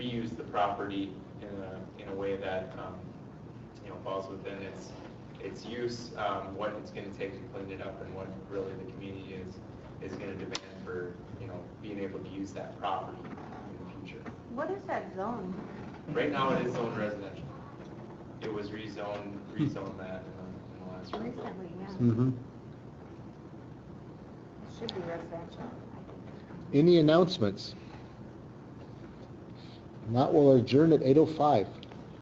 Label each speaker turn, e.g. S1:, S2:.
S1: property in a, in a way that, um, you know, falls within its, its use, um, what it's gonna take to clean it up and what really the community is, is gonna demand for, you know, being able to use that property in the future.
S2: What is that zone?
S1: Right now, it is zoned residential. It was rezoned, rezoned that in the, in the last. round.
S2: Recently, yeah,
S3: Mhm.
S2: it should be residential.
S3: Any announcements? Not, we'll adjourn at 8:05.